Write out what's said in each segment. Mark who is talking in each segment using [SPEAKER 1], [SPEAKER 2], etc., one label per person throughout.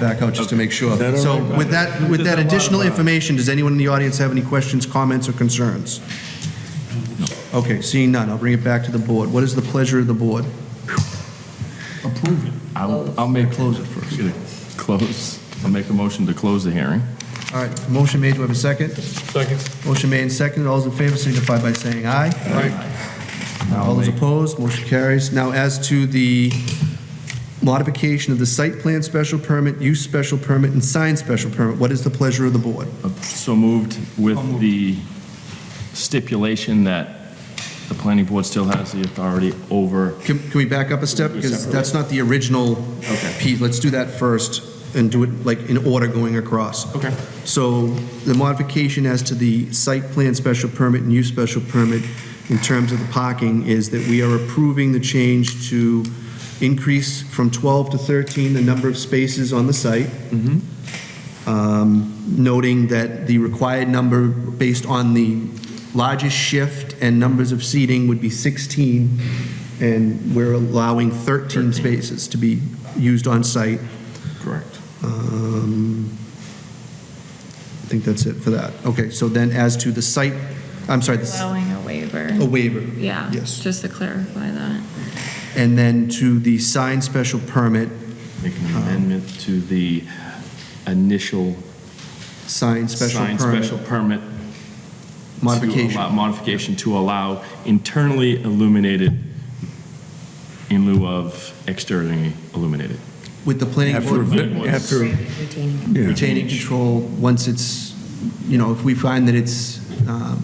[SPEAKER 1] back out just to make sure.
[SPEAKER 2] that all
[SPEAKER 1] So
[SPEAKER 2] right?
[SPEAKER 1] with that, with that additional information, does anyone in the audience have any questions, comments, or concerns? Okay, seeing none, I'll bring it back to the board. What is the pleasure of the board?
[SPEAKER 3] I'll, I'll make.
[SPEAKER 1] Close it first.
[SPEAKER 3] Close. I'll make a motion to close the hearing.
[SPEAKER 1] All right, motion made, do I have a second?
[SPEAKER 2] Second.
[SPEAKER 1] Motion made and seconded, all those in favor signify by saying aye. All those opposed, motion carries. Now, as to the modification of the site plan special permit, use special permit, and sign special permit, what is the pleasure of the board?
[SPEAKER 3] Uh, So moved with the stipulation that the planning board still has the authority over,
[SPEAKER 1] Can, can we back up a step? Because that's not the original piece. Let's do that first and do it like in order going across.
[SPEAKER 3] Okay.
[SPEAKER 1] So the modification as to the site plan special permit and use special permit in terms of the parking is that we are approving the change to increase from 12 to 13 the number of spaces on the site. Um, Noting that the required number based on the largest shift and numbers of seating would be 16, and we're allowing 13 spaces to be used on site.
[SPEAKER 3] correct.
[SPEAKER 1] Um, I think that's it for that. Okay, so then as to the site, I'm sorry, the s-
[SPEAKER 4] Allowing a waiver.
[SPEAKER 3] Oh,
[SPEAKER 1] a waiver.
[SPEAKER 4] Yeah.
[SPEAKER 1] Yes.
[SPEAKER 4] Just to clarify that.
[SPEAKER 1] And then to the sign special permit,
[SPEAKER 3] Make an
[SPEAKER 1] Uh-huh.
[SPEAKER 3] amendment to the initial
[SPEAKER 1] sign special
[SPEAKER 3] signed
[SPEAKER 1] permit
[SPEAKER 3] special permit. to allow-
[SPEAKER 1] modification.
[SPEAKER 3] Modification to allow internally illuminated in lieu of externally illuminated.
[SPEAKER 1] With the planning
[SPEAKER 2] After,
[SPEAKER 1] board
[SPEAKER 2] ev- after, yeah,
[SPEAKER 1] retaining control, once it's, you know, if we find that it's, um,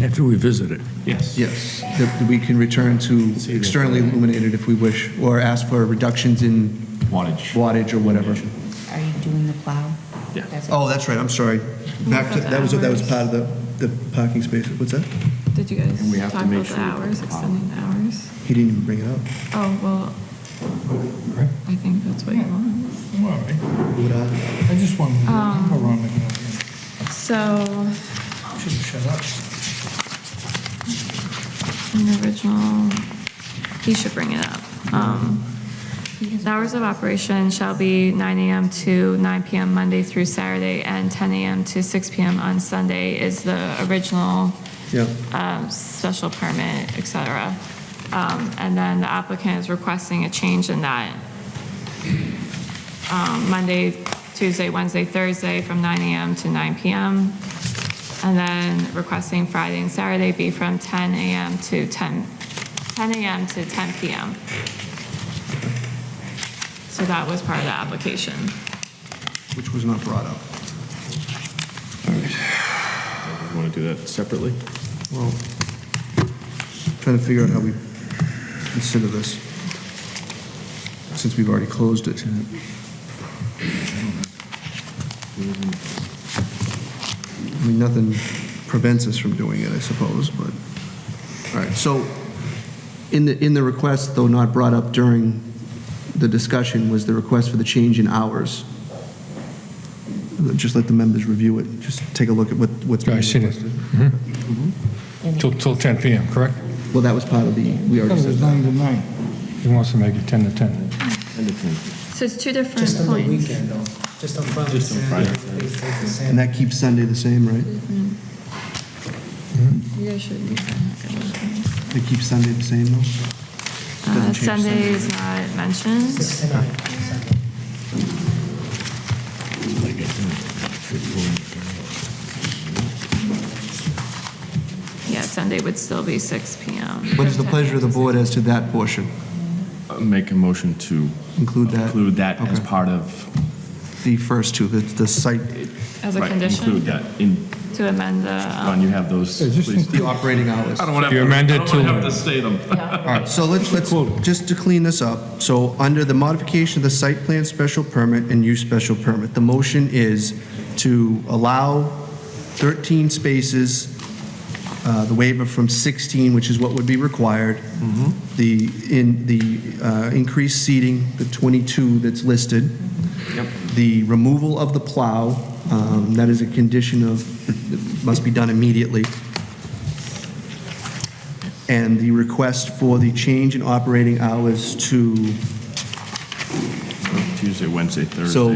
[SPEAKER 2] after we visit it.
[SPEAKER 3] Yes.
[SPEAKER 1] yes, that we can return to externally illuminated if we wish, or ask for reductions in
[SPEAKER 3] Wattage.
[SPEAKER 1] wattage or whatever.
[SPEAKER 5] Are you doing the plow?
[SPEAKER 3] Yeah.
[SPEAKER 5] That's it.
[SPEAKER 1] Oh, that's right, I'm sorry. Back to, that was, that was part of the, the parking space, what's that?
[SPEAKER 4] Did you guys
[SPEAKER 3] And we have to
[SPEAKER 4] talk
[SPEAKER 3] make
[SPEAKER 4] about the
[SPEAKER 3] sure we put
[SPEAKER 4] hours,
[SPEAKER 3] the power-
[SPEAKER 4] extending the hours?
[SPEAKER 1] He didn't even bring it up.
[SPEAKER 4] Oh, well, I think that's what you want.
[SPEAKER 6] All right. I just wanted to
[SPEAKER 7] Um,
[SPEAKER 6] go around again.
[SPEAKER 4] So,
[SPEAKER 6] Should have shut up.
[SPEAKER 4] in the original, he should bring it up. Um, The hours of operation shall be 9 AM to 9 PM Monday through Saturday, and 10 AM to 6 PM on Sunday is the original
[SPEAKER 1] Yeah.
[SPEAKER 4] um, special permit, et cetera. Um, And then the applicant is requesting a change in that um, Monday, Tuesday, Wednesday, Thursday from 9 AM to 9 PM. And then requesting Friday and Saturday be from 10 AM to 10, 10 AM to 10 PM. So that was part of the application.
[SPEAKER 1] Which was not brought up.
[SPEAKER 3] You want to do that separately?
[SPEAKER 1] Well, trying to figure out how we consider this, since we've already closed it. I mean, nothing prevents us from doing it, I suppose, but, all right, so, in the, in the request, though not brought up during the discussion, was the request for the change in hours. Just let the members review it, just take a look at what, what's being
[SPEAKER 6] I see it.
[SPEAKER 1] requested.
[SPEAKER 7] Till, till 10 PM, correct?
[SPEAKER 1] Well, that was part of the, we already said that.
[SPEAKER 6] nine to nine.
[SPEAKER 7] He wants to make it 10 to 10.
[SPEAKER 4] So it's two different
[SPEAKER 8] Just on the
[SPEAKER 4] points.
[SPEAKER 8] weekend though, just on Friday. Just on
[SPEAKER 1] And that keeps Sunday the same, right?
[SPEAKER 4] You guys should be fine.
[SPEAKER 1] It keeps Sunday the same, though?
[SPEAKER 4] Uh,
[SPEAKER 1] Doesn't change
[SPEAKER 4] Sunday is not mentioned.
[SPEAKER 8] Six to nine, Sunday.
[SPEAKER 4] Yeah, Sunday would still be 6 PM.
[SPEAKER 1] What is the pleasure of the board as to that portion?
[SPEAKER 3] Make a motion to
[SPEAKER 1] Include that?
[SPEAKER 3] include that as
[SPEAKER 1] Okay.
[SPEAKER 3] part of
[SPEAKER 1] The first two, the, the site,
[SPEAKER 4] As a
[SPEAKER 3] Right, Include
[SPEAKER 4] condition
[SPEAKER 3] that. In,
[SPEAKER 4] to amend the, um,
[SPEAKER 3] Ron, you have those, please.
[SPEAKER 1] the operating hours. All
[SPEAKER 3] want
[SPEAKER 7] You amend it to-
[SPEAKER 3] say them.
[SPEAKER 1] right, so let's, let's, just to clean this up, so under the modification of the site plan special permit and use special permit, the motion is to allow 13 spaces, uh, the waiver from 16, which is what would be required, the, in, the uh, increased seating, the 22 that's listed, the removal of the plow, um, that is a condition of, it must be done immediately, and the request for the change in operating hours to
[SPEAKER 3] Tuesday, Wednesday, Thursday.
[SPEAKER 1] So